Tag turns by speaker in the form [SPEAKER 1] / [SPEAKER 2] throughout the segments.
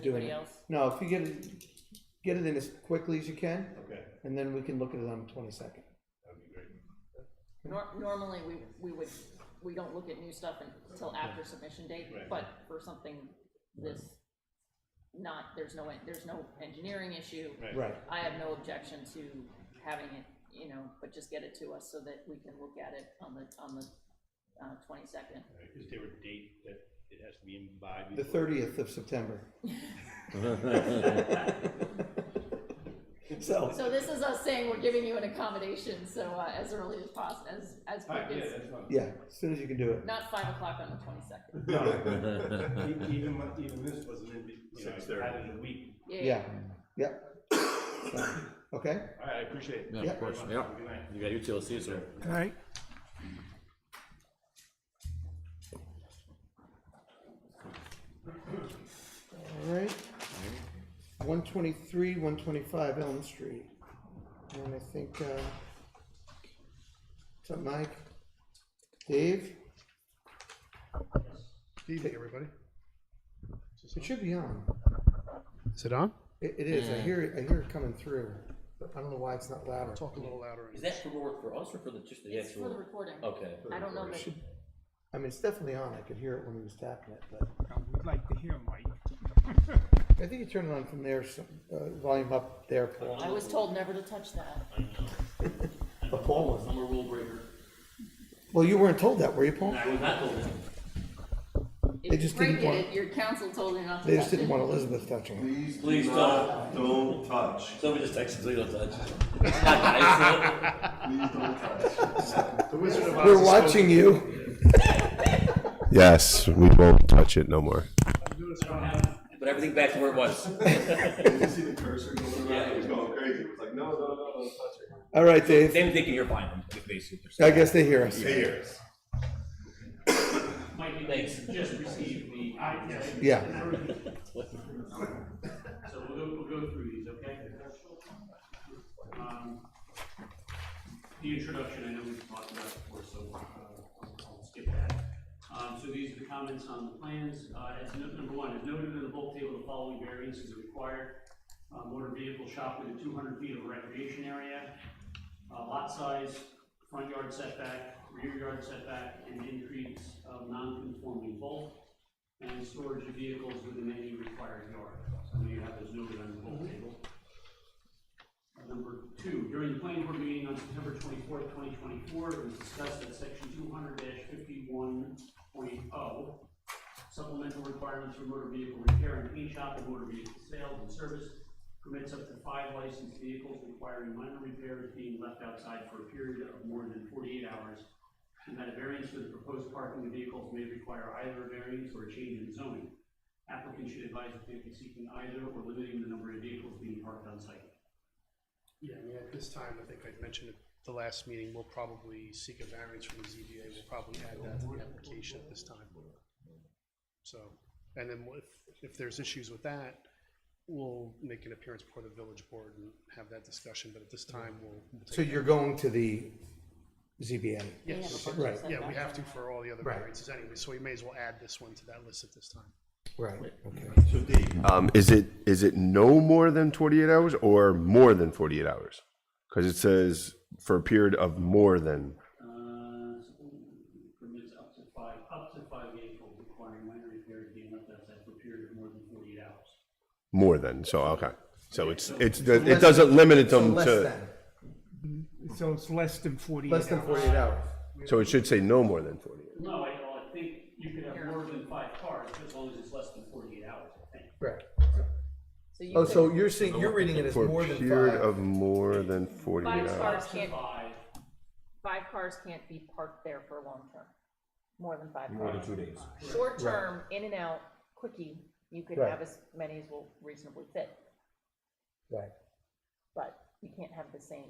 [SPEAKER 1] doing
[SPEAKER 2] Anybody
[SPEAKER 1] it.
[SPEAKER 2] else?
[SPEAKER 1] No, if you get it, get it in as quickly as you can,
[SPEAKER 3] Okay,
[SPEAKER 1] and then we can look at it on the twenty-second.
[SPEAKER 3] that'd be great.
[SPEAKER 2] Nor- normally, we, we would, we don't look at new stuff until after submission date,
[SPEAKER 3] Right.
[SPEAKER 2] but for something this, not, there's no, en- there's no engineering issue.
[SPEAKER 1] Right,
[SPEAKER 2] I have no objection to having it, you know, but just get it to us so that we can look at it on the, on the, uh, twenty-second.
[SPEAKER 3] Right, Is there a date that it has to be in by?
[SPEAKER 1] the
[SPEAKER 3] before-
[SPEAKER 1] thirtieth of September. So,
[SPEAKER 2] So this is us saying we're giving you an accommodation, so, uh, as early as possible, as, as
[SPEAKER 3] All
[SPEAKER 2] quick
[SPEAKER 3] right, yeah,
[SPEAKER 2] as,
[SPEAKER 3] that's fine.
[SPEAKER 1] yeah, as soon as you can do it.
[SPEAKER 2] not five o'clock on the twenty-second.
[SPEAKER 3] E- Even, when- even this wasn't in, be- you know,
[SPEAKER 4] Six
[SPEAKER 3] I had it in a week.
[SPEAKER 1] Yeah, yeah. Okay,
[SPEAKER 3] All right, I appreciate it.
[SPEAKER 4] Yeah,
[SPEAKER 1] Yeah.
[SPEAKER 4] of course,
[SPEAKER 3] Very
[SPEAKER 4] yeah.
[SPEAKER 3] much. Have a Good night.
[SPEAKER 4] You got utilities, or?
[SPEAKER 5] All right.
[SPEAKER 1] all right. One twenty-three, one twenty-five Elm Street. And I think, uh, what's up, Mike? Dave?
[SPEAKER 5] Evening, everybody.
[SPEAKER 1] It should be on.
[SPEAKER 5] Is it on?
[SPEAKER 1] It, it is,
[SPEAKER 6] Mm.
[SPEAKER 1] I hear, it- I hear it coming through. but I don't know why it's not louder.
[SPEAKER 5] Talk a little louder.
[SPEAKER 7] Is that for work for us or for the, just the
[SPEAKER 2] It's for the
[SPEAKER 7] actual?
[SPEAKER 2] recording.
[SPEAKER 7] Okay.
[SPEAKER 2] I don't know that,
[SPEAKER 1] I mean, it's definitely on, I could hear it when he was tapping it, but.
[SPEAKER 8] We'd like to hear Mike.
[SPEAKER 1] I think you turn it on from there, some, uh, volume up there, Paul.
[SPEAKER 2] I was told never to touch that.
[SPEAKER 1] The Paul was.
[SPEAKER 7] I'm a rule breaker.
[SPEAKER 1] Well, you weren't told that, were you, Paul?
[SPEAKER 7] I was not told that.
[SPEAKER 1] They
[SPEAKER 2] If you
[SPEAKER 1] just didn't
[SPEAKER 2] break it,
[SPEAKER 1] want-
[SPEAKER 2] it, your council told you not to touch it.
[SPEAKER 1] They just didn't want Elizabeth touching
[SPEAKER 4] Please,
[SPEAKER 7] Please
[SPEAKER 4] not- don't touch.
[SPEAKER 7] Somebody just texted, please don't touch. It's not nice, is it?
[SPEAKER 4] Please don't touch.
[SPEAKER 3] The Wizard of
[SPEAKER 1] it.
[SPEAKER 3] Oz
[SPEAKER 1] We're
[SPEAKER 3] is
[SPEAKER 1] watching you.
[SPEAKER 6] Yes, we won't touch it no more.
[SPEAKER 7] But everything back to where it was.
[SPEAKER 4] Did you see the cursor going around? It was going crazy. It was like, no, no, no, don't touch it.
[SPEAKER 1] All right, Dave.
[SPEAKER 7] Same thinking, you're fine, is basically what
[SPEAKER 1] I
[SPEAKER 7] they're
[SPEAKER 1] guess they hear us.
[SPEAKER 4] Bears.
[SPEAKER 3] Mike, you
[SPEAKER 7] Thanks.
[SPEAKER 3] just received the.
[SPEAKER 1] Yeah.
[SPEAKER 3] So we'll go, we'll go through these, okay? Um, The introduction, I know we've talked about before, so uh, I'll I'll skip that. Um, So these are the comments on the plans. Uh, As note number one, as noted in the bulk table, the following variances are required. Uh, Motor vehicle shop within two hundred feet of recreation area, uh, lot size, front yard setback, rear yard setback, and increase of non-conforming bulk and storage of vehicles within any required yard. So I know you have those noted on the whole table. Uh, Number two, during the planning board meeting on September twenty-fourth, twenty twenty-four, it was discussed that section two hundred fifty-one oh, supplemental requirements for motor vehicle repair and paint shop and motor vehicle sales and service permits up to five licensed vehicles requiring minor repairs being left outside for a period of more than forty-eight hours and that a variance for the proposed parking of vehicles may require either a variance or a change in zoning. Applicants should advise if they are seeking either or limiting the number of vehicles being parked on site.
[SPEAKER 5] Yeah, I mean, at this time, I think I mentioned at the last meeting, we'll probably seek a variance from the ZBA. We'll probably add that to the application at this time. So, and then if, if there's issues with that, we'll make an appearance before the village board and have that discussion, but at this time, we'll. we'll
[SPEAKER 1] So
[SPEAKER 5] take-
[SPEAKER 1] you're going to the ZBA.
[SPEAKER 5] Yes,
[SPEAKER 2] Yeah,
[SPEAKER 1] Right.
[SPEAKER 5] yeah, we have to for all the other
[SPEAKER 1] Right.
[SPEAKER 5] variances anyway, so we may as well add this one to that list at this time.
[SPEAKER 1] Right, okay.
[SPEAKER 4] So Dave,
[SPEAKER 6] Um, is it is it no more than forty eight hours or more than forty eight hours? Because it says for a period of more than.
[SPEAKER 3] Uh, so permits up to five, up to five vehicles requiring minor repairs being left outside for a period of more than forty-eight hours.
[SPEAKER 6] More than. So okay. So it's it's it doesn't limit it
[SPEAKER 1] So
[SPEAKER 6] them
[SPEAKER 1] less
[SPEAKER 6] to.
[SPEAKER 1] than,
[SPEAKER 8] So it's less than forty-eight
[SPEAKER 1] less than
[SPEAKER 8] hours.
[SPEAKER 1] forty-eight hours.
[SPEAKER 6] So it should say no more than forty eight.
[SPEAKER 3] No, I, well, I think you could have more than five cars, as long as it's less than forty-eight hours, I think.
[SPEAKER 1] Right.
[SPEAKER 2] So you
[SPEAKER 1] Oh,
[SPEAKER 2] could-
[SPEAKER 1] so you're seeing, you're reading it as
[SPEAKER 6] For
[SPEAKER 1] more
[SPEAKER 6] a
[SPEAKER 1] than
[SPEAKER 6] period
[SPEAKER 1] five.
[SPEAKER 6] of more than forty eight
[SPEAKER 2] Five
[SPEAKER 6] hours.
[SPEAKER 2] cars
[SPEAKER 3] Up to
[SPEAKER 2] can't,
[SPEAKER 3] Five,
[SPEAKER 2] five cars can't be parked there for long term, more than five cars. More than two days. Short term, in and out, quickie, you could
[SPEAKER 1] Right.
[SPEAKER 2] have as many as will reasonably fit,
[SPEAKER 1] Right.
[SPEAKER 2] but you can't have the same,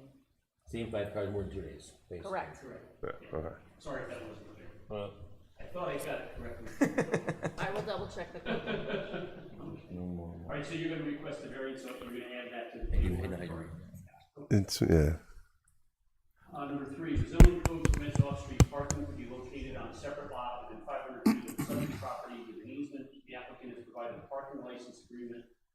[SPEAKER 7] Same five cars, more than two days. basically.
[SPEAKER 2] correct?
[SPEAKER 6] Yeah, okay.
[SPEAKER 3] sorry if that wasn't clear.
[SPEAKER 7] Uh,
[SPEAKER 3] I thought I got it correctly.
[SPEAKER 2] I will double check the code.
[SPEAKER 3] All right, so you're gonna request a variance, so you're gonna add that to the
[SPEAKER 7] You
[SPEAKER 3] table.
[SPEAKER 7] and I agree.
[SPEAKER 6] It's yeah.
[SPEAKER 3] Uh, number three, the zoning code permits off-street parking to be located on a separate lot within five hundred feet of the subject property with an easement. The applicant has provided a parking
[SPEAKER 4] license agreement